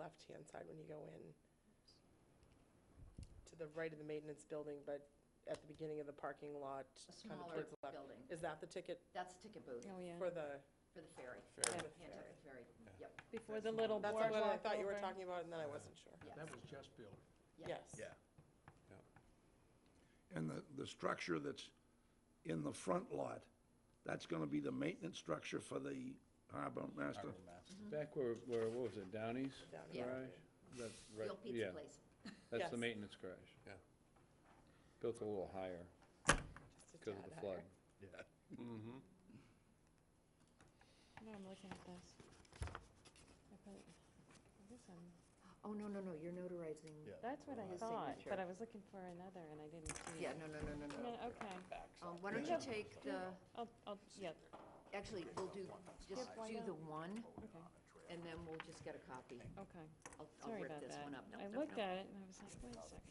left-hand side when you go in. To the right of the maintenance building, but at the beginning of the parking lot, A kind of smaller towards the left. building. Is that the ticket That's the ticket booth Oh, yeah. for the? for the ferry, Fair. for the ferry? Nantucket Ferry. Before the little That's boardwalk what over. I thought you were talking about, and then I wasn't sure. Yes. That was just built. Yes. And the, the structure that's in the front lot, that's gonna be the maintenance structure for the harbor master? Back where, where, what was it, Downey's Downey's. Yeah. garage? That's The right, old yeah, pizza place. that's the Yes. maintenance garage. Yeah. Built a little higher Just a because of tad the higher. flood. No, I'm looking at this. I probably- I guess I'm- Oh, no, no, no, you're notarizing. That's what I His thought, signature. but I was looking for another and I didn't see Yeah, it. no, no, no, no, no. No, Okay, Um, Why don't you take the, I'll, I'll, yeah, actually, we'll do, just Skip, why do not? the one, okay, and then we'll just get a copy. okay. I'll, I'll Sorry rip about this that. one up. No, I no, looked no. at it and I was like, wait a second.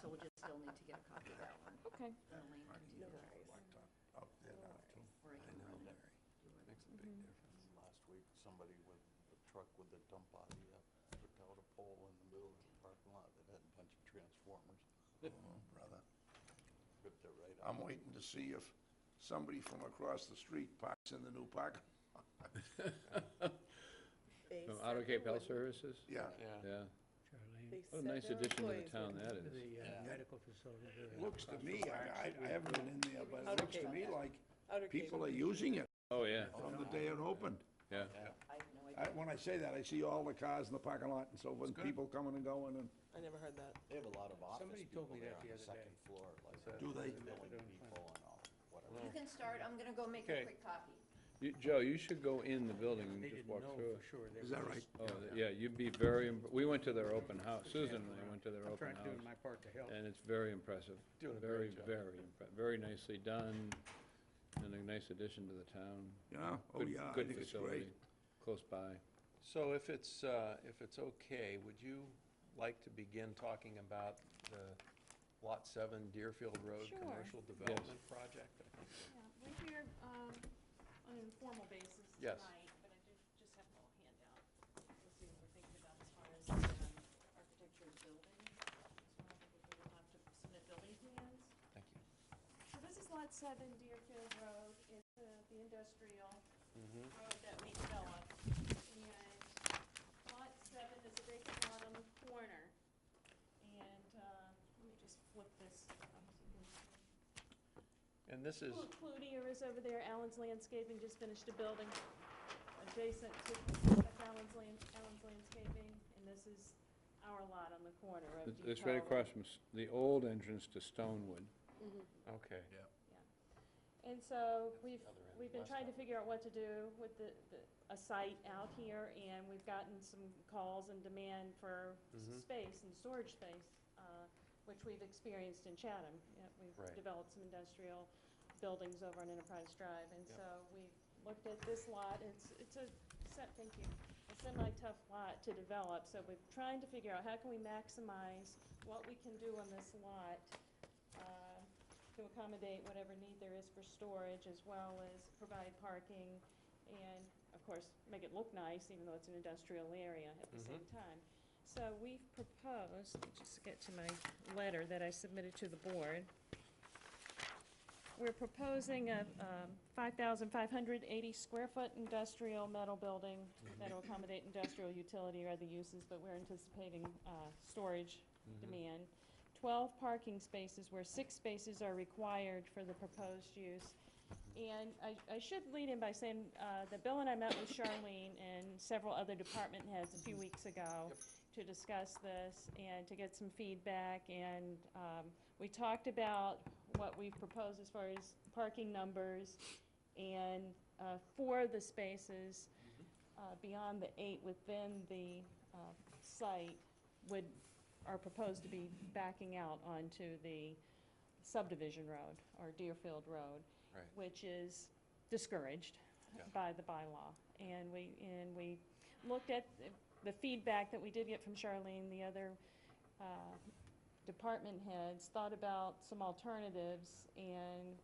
So we'll just still need to get a copy of that one. Okay, and Elaine can do that, or I can run it. Makes a big difference. Last week, somebody with a truck with a dump body, uh, took out a pole in the middle of the parking lot that had a bunch of transformers, Oh, Brother, ripped it right out. I'm waiting to see if somebody from across the street parks in the new park. They From said Auto Cape they Health wouldn't- Services, Yeah, Yeah. yeah. they Charlene, said What a nice their addition to the employees town wouldn't- that to is. the uh, medical facility. It looks to me, I, I- I haven't been in there, but it looks to me like Outer Cape. people are using it Oh, yeah, on the day it opened. I yeah. have no I, idea. when I say that, I see all the cars in the parking lot and so forth, and people coming and going and. I never heard that. They have a lot of office Somebody people told me there that on the the other day. second floor, like Do they? billing people and all, whatever. You can start, I'm gonna go make Okay. a quick copy. You- Joe, you should go in the building and They just didn't walk know through for sure. They Is were that just right? it. Oh, yeah, you'd be very, im- we went to their open house, Susan and I went to their I'm open trying to do house. my part to help. And it's very impressive. Doing a Very, great job. very, impre- very nicely done, and a nice addition to the town. Yeah, oh Good- yeah, I good think it's facility, great. Close by. So if it's, uh, if it's okay, would you like to begin talking about the Lot 7 Deerfield Road Sure. Commercial Development Project? I think Yeah, we're here um, on an informal basis Yes. tonight, but I do just have a little handout. Let's see what we're thinking about as far as um, architecture and building. So I think we will have to submit building plans. Thank you. So this is lot seven Deerfield Road, it's uh, the industrial Mm-hmm. road that we developed. And lot seven is a vacant lot on the corner. And uh, let me just flip this up so you can see. And this is, Clu- Cloutier is over there, Allen's Landscaping just finished a building adjacent to that's Allen's Land, Allen's Landscaping, and this is our lot on the corner of It's- Depot. It's right across from s- the old entrance to Stonewood. okay. And so we've, the other end, we've been west trying to figure out what to do with the, the- a site out here, and we've gotten some calls and demand for s- Mhm. space and storage space, uh, which we've experienced in Chatham. Yeah, Right. We've developed some industrial buildings over on Enterprise Drive, and Yep. so we looked at this lot. It's, it's a, se- thank you, a semi-tough lot to develop, so we're trying to figure out how can we maximize what we can do on this lot uh, to accommodate whatever need there is for storage, as well as provide parking, and, of course, make it look nice, even though it's an industrial area at the same time. So we've proposed, let me just get to my letter that I submitted to the board. We're proposing a um, 5,580 square foot industrial metal building that'll accommodate industrial utility or other uses, but we're anticipating uh, storage Mm-hmm. demand. 12 parking spaces where six spaces are required for the proposed use. And I, I should lead in by saying uh, that Bill and I met with Charlene and several other department heads a few weeks ago to discuss this and to get some feedback. And um, we talked about what we've proposed as far as parking numbers and uh, for the spaces uh, beyond the eight within the uh, site would, are proposed to be backing out onto the subdivision road or Deerfield Road. Right. Which is discouraged Yeah. by the bylaw. And we, and we looked at the- the feedback that we did get from Charlene, the other uh, department heads, thought about some alternatives, and